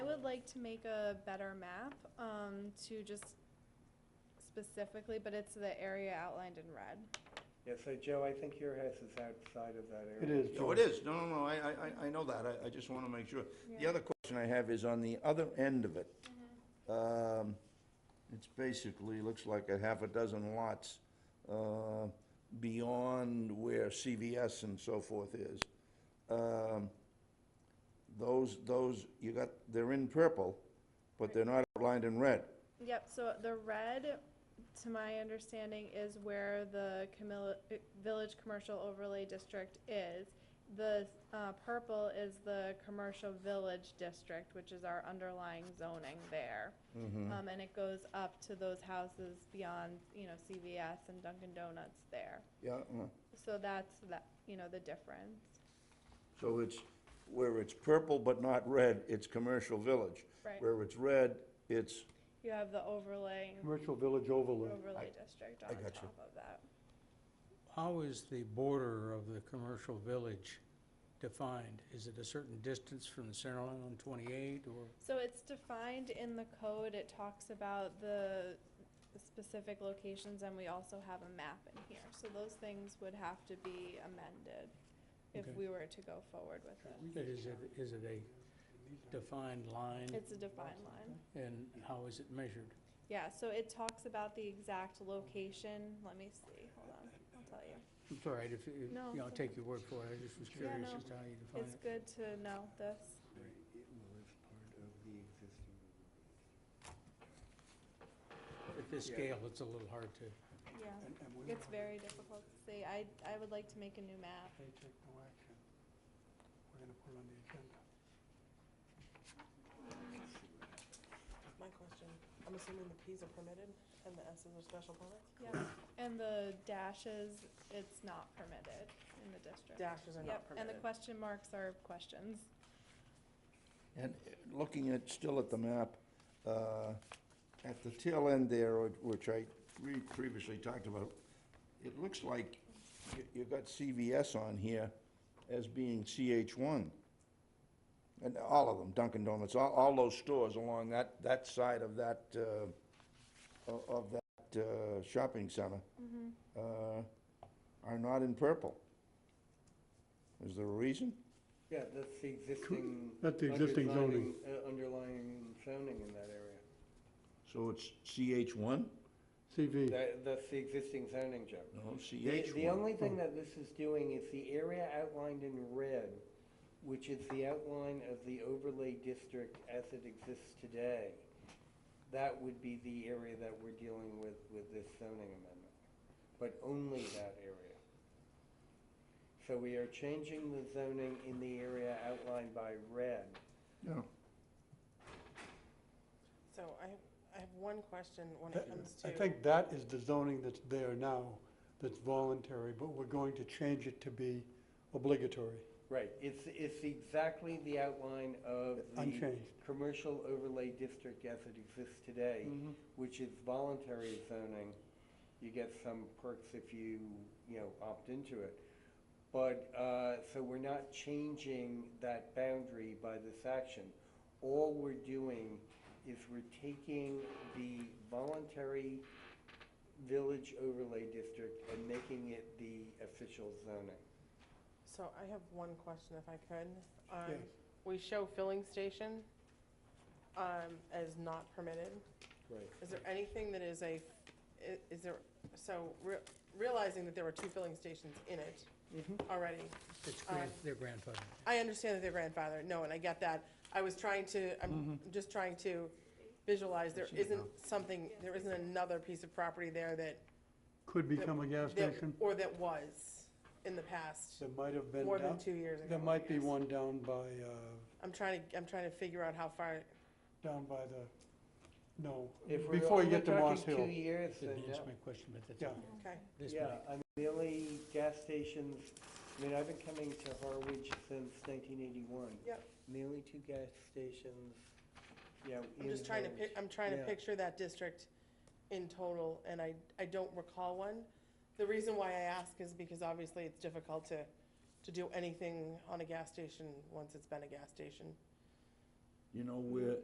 like to make a better map, um, to just specifically, but it's the area outlined in red. Yeah, so Joe, I think your house is outside of that It area. is, Oh, George. it is, no, no, no, I, I- I, I know that, I, I just wanna make sure. The Yeah. other question I have is on the other end of it. Mm-hmm. Um, it's basically, looks like a half a dozen lots, uh, beyond where CVS and so forth is. Um, those, those, you got, they're in purple, but they're not outlined in red. Yep, so the red, to my understanding, is where the Camilla, uh, Village Commercial Overlay District is. The, uh, purple is the Commercial Village District, which is our underlying zoning there. Um, and it goes up to those houses beyond, you know, CVS and Dunkin' Donuts there. Yeah, uh, So that's that, you know, the difference. so it's, where it's purple but not red, it's commercial village. Right. Where it's red, it's You have the overlay, Commercial village overlay. overlay district I on gotcha. top of that. How is the border of the commercial village defined? Is it a certain distance from the center line on 28 or? So it's defined in the code, it talks about the specific locations, and we also have a map in here. So those things would have to be amended if Okay. we were to go forward with it. But is it, is it a defined line It's a defined line. and how is it measured? Yeah, so it talks about the exact location, let me see, hold on, I'll tell you. It's all right, if, you you No, know, I'll it's okay. take your word for it, I just was Yeah, curious no. as to how you define It's it. good to know this. It was part of the existing. At this yeah. scale, it's a little hard to, Yeah, And, and we it's very difficult to see. I, I would like to make a new map. take no action. We're gonna put on the agenda. My question, I'm assuming the Ps are permitted and the Ss are special permits? Yeah, and the dashes, it's not permitted in the district. Dashes are not Yep, and the permitted. question marks are questions. And uh, looking at, still at the map, uh, at the tail end there, which- which I re- previously talked about, it looks like you- you've got CVS on here as being CH1. And all of them, Dunkin' Donuts, all, all those stores along that, that side of that, uh, o- of that uh, shopping center uh, are not in purple. Is there a reason? Yeah, that's the existing. That's the existing zoning. underlying- uh, Underlying zoning in that area. So it's CH1? CV, That, that's the existing zoning, Joe. No, The, CH1. the only thing that this is doing is the area outlined in red, which is the outline of the overlay district as it exists today. That would be the area that we're dealing with, with this zoning amendment, but only that area. So we are changing the zoning in the area outlined by red. Yeah. So I have, I have one question when it That- comes to. I think that is the zoning that's there now, that's voluntary, but we're going to change it to be obligatory. Right, it's, it's exactly the outline of the Unchanged. commercial overlay district as it exists today, which is voluntary zoning. You get some perks if you, you know, opt into it. But, uh, so we're not changing that boundary by this action. All we're doing is we're taking the voluntary village overlay district and making it the official zoning. So I have one question if I could. Um, Yes. We show filling station um, as not permitted. Right. Is there anything that is a, i- is there, so re- realizing that there were two filling stations in it already, it's Uh, grand- their grandfather. I understand that they're grandfathered, no, and I get that. I was trying to, I'm just trying to visualize, there isn't something, there isn't another piece of property there that. Could become a gas that- station. Or that was in the past, There might have been more than down, two years ago. there might be yes. one down by, uh, I'm trying to, I'm trying to figure out how far, down by the, no, If we're before you only get to Moss talking Hill. Two years, then Didn't yeah. answer my question, but that's Yeah. okay. okay. This Yeah, might- I mean, the only gas stations, I mean, I've been coming to Harwich since nineteen eighty-one. Yep. And the only two gas stations, yeah. I'm in just trying to Harwich. pic, I'm trying to Yeah. picture that district in total, and I, I don't recall one. The reason why I ask is because obviously it's difficult to, to do anything on a gas station once it's been a gas station. You know where